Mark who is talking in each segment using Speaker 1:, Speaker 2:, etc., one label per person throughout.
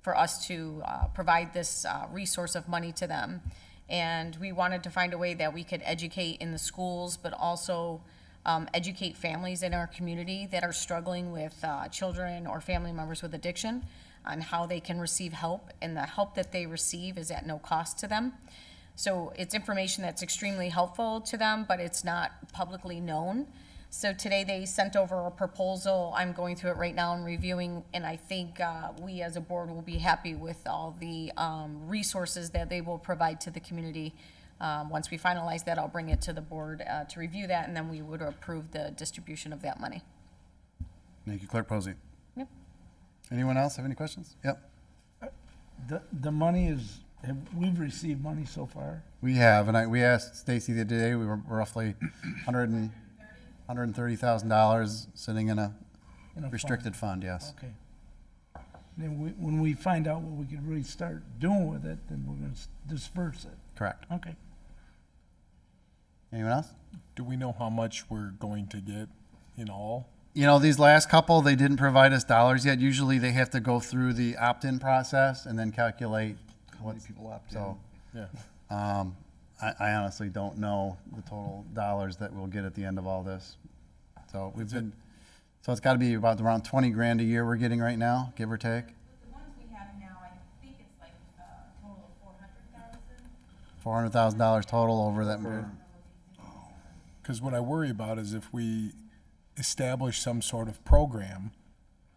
Speaker 1: for us to uh, provide this uh, resource of money to them. And we wanted to find a way that we could educate in the schools, but also um, educate families in our community that are struggling with uh, children or family members with addiction on how they can receive help, and the help that they receive is at no cost to them. So it's information that's extremely helpful to them, but it's not publicly known. So today they sent over a proposal. I'm going through it right now and reviewing, and I think uh, we as a board will be happy with all the um, resources that they will provide to the community. Um, Once we finalize that, I'll bring it to the board uh, to review that, and then we would approve the distribution of that money.
Speaker 2: Thank you, Clerk Posey.
Speaker 1: Yep.
Speaker 2: Anyone else have any questions? Yep,
Speaker 3: The, the money is, have, we've received money so far?
Speaker 2: we have, and I, we asked Stacy the other day, we were roughly hundred and, hundred and thirty thousand dollars sitting in a
Speaker 3: in a fund?
Speaker 2: restricted fund, yes.
Speaker 3: Okay. Then we, when we find out what we can really start doing with it, then we're gonna s- disperse it.
Speaker 2: Correct.
Speaker 3: Okay.
Speaker 2: Anyone else?
Speaker 4: Do we know how much we're going to get in all?
Speaker 2: You know, these last couple, they didn't provide us dollars yet. Usually they have to go through the opt-in process and then calculate what people opt in.
Speaker 4: Yeah.
Speaker 2: Um, I, I honestly don't know the total dollars that we'll get at the end of all this. So we've been, so it's gotta be about around twenty grand a year we're getting right now, give or take,
Speaker 5: The ones we have now, I think it's like uh, a total of four hundred thousand.
Speaker 2: four hundred thousand dollars total over that.
Speaker 4: Because what I worry about is if we establish some sort of program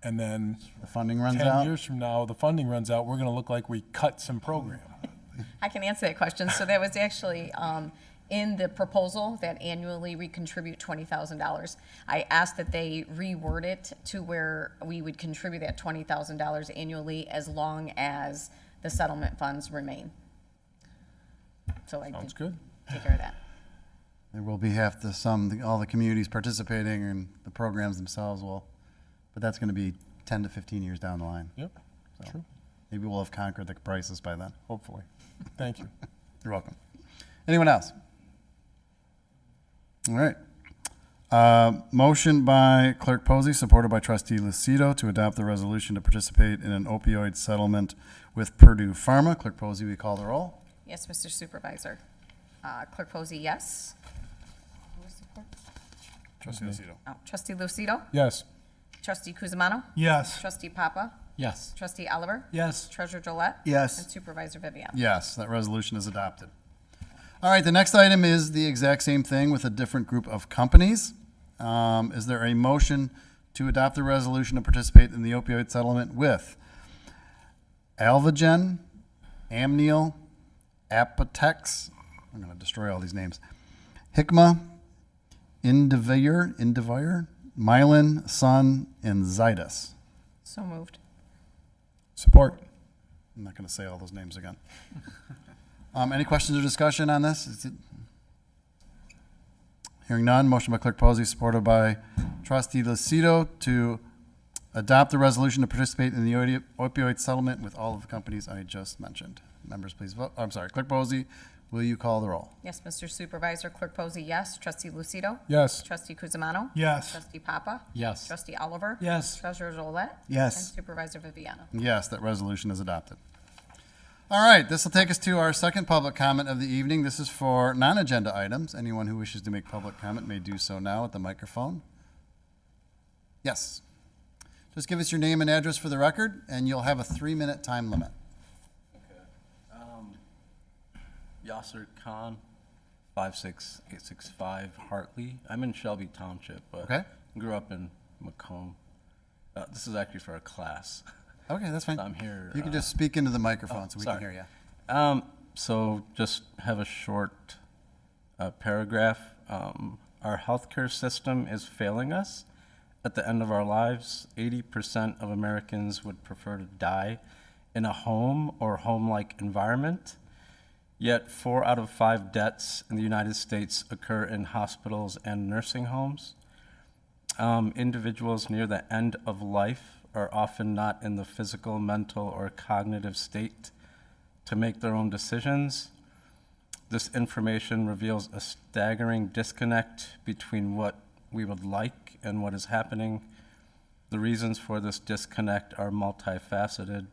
Speaker 4: and then
Speaker 2: The funding runs
Speaker 4: 10
Speaker 2: out.
Speaker 4: years from now, the funding runs out, we're going to look like we cut some program.
Speaker 1: I can answer that question. So that was actually um, in the proposal that annually we contribute twenty thousand dollars. I asked that they reword it to where we would contribute that twenty thousand dollars annually as long as the settlement funds remain. So I
Speaker 4: Sounds
Speaker 1: did
Speaker 4: good.
Speaker 1: take care of that.
Speaker 2: There will be half the sum, all the communities participating and the programs themselves will, but that's gonna be ten to fifteen years down the line.
Speaker 4: Yep. True.
Speaker 2: Maybe we'll have conquered the crisis by then.
Speaker 4: Hopefully. Thank you.
Speaker 2: You're welcome. Anyone else? All right. Uh, Motion by Clerk Posey, supported by Trustee Lucido, to adopt the resolution to participate in an opioid settlement with Purdue Pharma. Clerk Posey, we call the roll.
Speaker 1: Yes, Mr. Supervisor. Uh, Clerk Posey, yes. Who was the clerk?
Speaker 2: Trustee Lucido.
Speaker 1: Oh, Trustee Lucido,
Speaker 4: Yes.
Speaker 1: Trustee Kuzma,
Speaker 3: Yes.
Speaker 1: Trustee Papa,
Speaker 4: Yes.
Speaker 1: Trustee Oliver,
Speaker 3: Yes.
Speaker 1: Treasurer Gillette.
Speaker 2: Yes.
Speaker 1: And Supervisor Vivian.
Speaker 2: Yes, that resolution is adopted. All right, the next item is the exact same thing with a different group of companies. Um, Is there a motion to adopt the resolution to participate in the opioid settlement with Alvogen, Amneal, Apotex, I'm going to destroy all these names, Hikma, Indivior, Indivior, Mylan, Sun, and Zydus.
Speaker 1: So moved.
Speaker 4: Support.
Speaker 2: I'm not going to say all those names again. Um, any questions or discussion on this? Is it- Hearing none, motion by Clerk Posey, supported by Trustee Lucido to adopt the resolution to participate in the opi- opioid settlement with all of the companies I just mentioned. Members, please vote. I'm sorry, Clerk Posey, will you call the roll?
Speaker 1: Yes, Mr. Supervisor, Clerk Posey, yes. Trustee Lucido?
Speaker 4: Yes.
Speaker 1: Trustee Kuzma?
Speaker 3: Yes.
Speaker 1: Trustee Papa?
Speaker 4: Yes.
Speaker 1: Trustee Oliver?
Speaker 3: Yes.
Speaker 1: Treasurer Drollet?
Speaker 3: Yes.
Speaker 1: And Supervisor Viviano?
Speaker 2: Yes, that resolution is adopted. All right, this will take us to our second public comment of the evening. This is for non-agenda items. Anyone who wishes to make public comment may do so now at the microphone. Yes. Just give us your name and address for the record, and you'll have a three-minute time limit.
Speaker 6: Yasser Khan, 56865 Hartley. I'm in Shelby Township, but
Speaker 2: Okay.
Speaker 6: grew up in Macomb. Uh, This is actually for a class.
Speaker 2: Okay, that's fine.
Speaker 6: I'm here,
Speaker 2: You can
Speaker 6: uh, oh,
Speaker 2: just speak into the microphone so we can
Speaker 6: Sorry.
Speaker 2: hear you.
Speaker 6: Um, so just have a short uh, paragraph. Um, our healthcare system is failing us. At the end of our lives, 80% of Americans would prefer to die in a home or home like environment. Yet, four out of five deaths in the United States occur in hospitals and nursing homes. Um, individuals near the end of life are often not in the physical, mental, or cognitive state to make their own decisions. This information reveals a staggering disconnect between what we would like and what is happening. The reasons for this disconnect are multifaceted